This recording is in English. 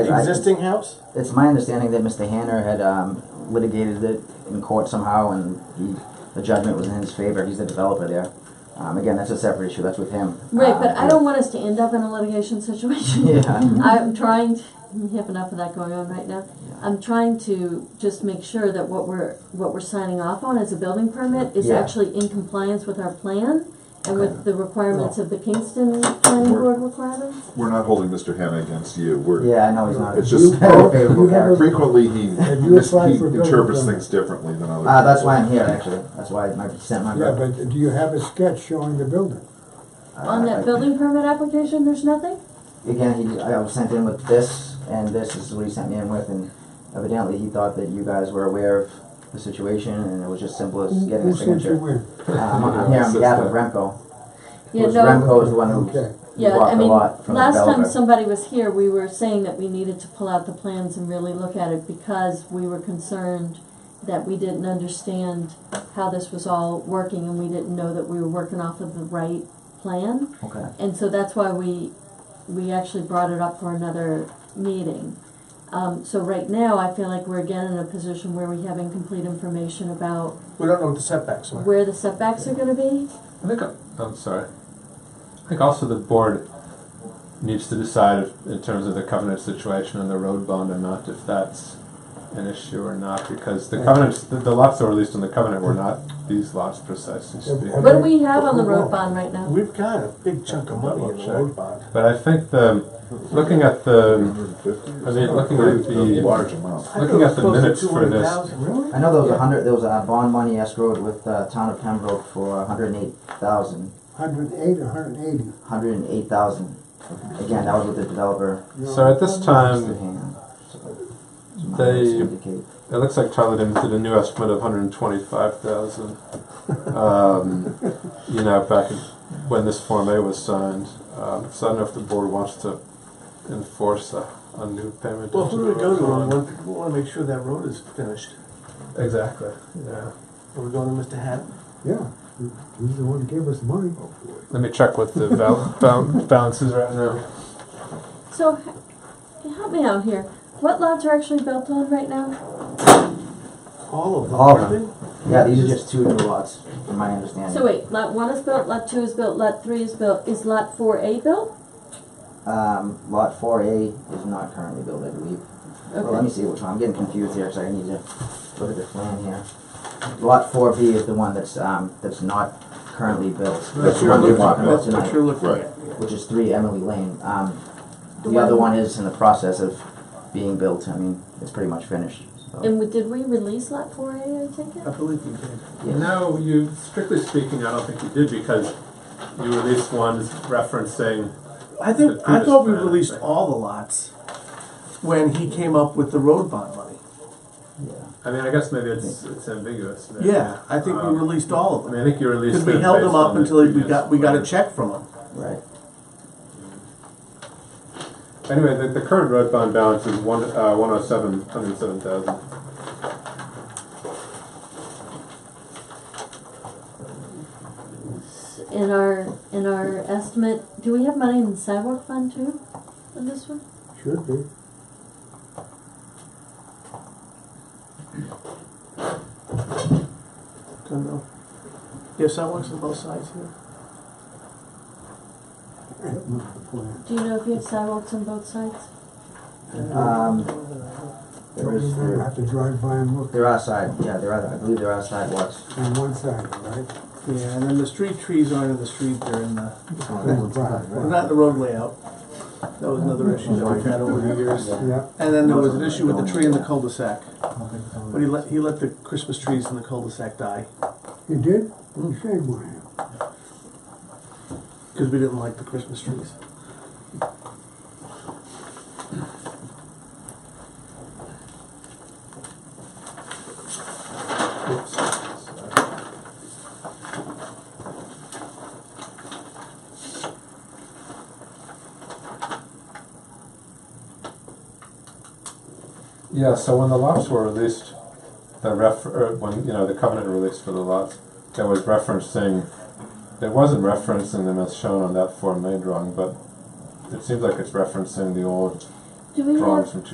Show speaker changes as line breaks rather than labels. Existing house?
It's my understanding that Mr. Hanner had um, litigated it in court somehow, and he, the judgment was in his favor. He's the developer there. Um, again, that's a separate issue. That's with him.
Right,
Uh,
but I don't want us to end up in a litigation situation.
Yeah.
I'm trying, to- we have enough of that going on right now. I'm trying to just make sure that what we're, what we're signing off on as a building permit is
Yeah.
actually in compliance with our plan and with the requirements of the Kingston planning
We're-
board requirements.
We're not holding Mr. Hanna against you, we're,
Yeah, I know he's not.
it's just,
favorable
You have
character.
a-
frequently he,
Have you
mis-
applied
he
for Ah, building
interprets
permit?
things differently than other people.
Uh, that's why I'm here, actually. That's why I sent my.
Yeah, but do you have a sketch showing the building?
On that building permit application, there's nothing?
Uh, Again, he, I was sent in with this, and this is what he sent me in with, and evidently he thought that you guys were aware of the situation, and it was just simple as
Who-
getting a
Who sent you
signature.
in?
Um, I'm here on behalf of Remco.
Yeah,
Whereas
no,
Remco is the one who
Okay.
yeah,
bought
I
the
mean,
lot from the
last time
developer.
somebody was here, we were saying that we needed to pull out the plans and really look at it because we were concerned that we didn't understand how this was all working and we didn't know that we were working off of the right plan.
Okay.
And so that's why we, we actually brought it up for another meeting. Um, so right now, I feel like we're again in a position where we have incomplete information about
We don't know what the setbacks are.
where the setbacks are gonna be.
I think, uh, I'm sorry. I think also the board needs to decide if, in terms of the covenant situation and the road bond amount, if that's an issue or not, because the covenants, the, the lots that were released on the covenant were not these lots precisely speaking.
What do we have on the road bond right now?
We've got a big chunk of money in the road bond.
But I think the, looking at the,
150 or
I mean, looking at
something. A
the-
large amount.
I
Looking at the
thought it was
minutes
close
for
to
this-
200,000. Really?
I know there was a hundred, there was a bond money escrowed with, uh, town of Pembroke for a hundred and eight thousand,
Hundred and eight or hundred and eighty?
hundred and eight thousand. Again, that was with the developer.
so at this
Mr.
time,
Hand.
they-
Indicate.
it looks like Charlie Dimmons did a new estimate of hundred and twenty-five thousand. Um, you know, back in- when this Form A was signed, um, so I don't know if the board wants to enforce a, a new payment.
Well, who do we go to?
on-
We want- We wanna make sure that road is finished.
Exactly, yeah.
Are we going to Mr. Hatton? Oh,
Yeah, he's the one who gave us the money.
Let me check what the val- bal- balance is right now.
So, h- help me out here. What lots are actually built on right now?
All of them,
All of
aren't
them.
they?
Yeah, these are just two new lots, from my understanding.
So wait, lot one is built, lot two is built, lot three is built. Is lot four A built?
Um, lot four A is not currently built, I believe. Well, let me
Okay.
see which one, I'm getting confused here, so I need to look at the plan here. Lot four B is the one that's, um, that's not currently built. That's
That's
the
your
one we're
look-
talking about
That's what you're
tonight,
looking
Right.
at.
which is three Emily Lane. Um,
The
the other
one-
one is in the process of being built, I mean, it's pretty much finished, so.
And we- did we release lot four A, I take it?
believe you did.
yes.
No, you, strictly speaking, I don't think you did because you released one referencing,
I think,
The
I thought we
previous plan, I
released
think.
all the lots when he came up with the road bond money.
Yeah.
I mean, I guess maybe it's, it's ambiguous.
Yeah, I think we
Um,
released all of
I
them.
mean, I think you released.
Cause we
it
held them
based
up
on the
until we
previous
got, we got a
plan.
check from him.
Right,
Anyway, the, the current road bond balance is one, uh, one oh seven, hundred and seven thousand.
S- In our, in our estimate, do we have money in the sidewalk fund too, on this one?
Should be.
Don't know. You have sidewalks on both sides here?
I don't know the plan.
Do you know if you have sidewalks on both sides?
um, there
Don't
is,
you
there,
have to drive by and look
there are side, yeah, there are, I believe there are sidewalks.
on one side, right?
Yeah, and then the street trees aren't in the street, they're in the, well,
Right,
not in the road layout. That was another issue that we've had over the years.
right. Yeah,
And then there was an issue with the tree in the cul-de-sac. But he let, he let the Christmas trees in the cul-de-sac die,
you did? Shame on him.
cause we didn't like the Christmas trees.
Oops. Yeah, so when the lots were released, the ref, er, when, you know, the covenant released for the lots, there was referencing, it wasn't referencing them as shown on that Form A drawing, but it seems like it's referencing the old
Do we have
drawings from two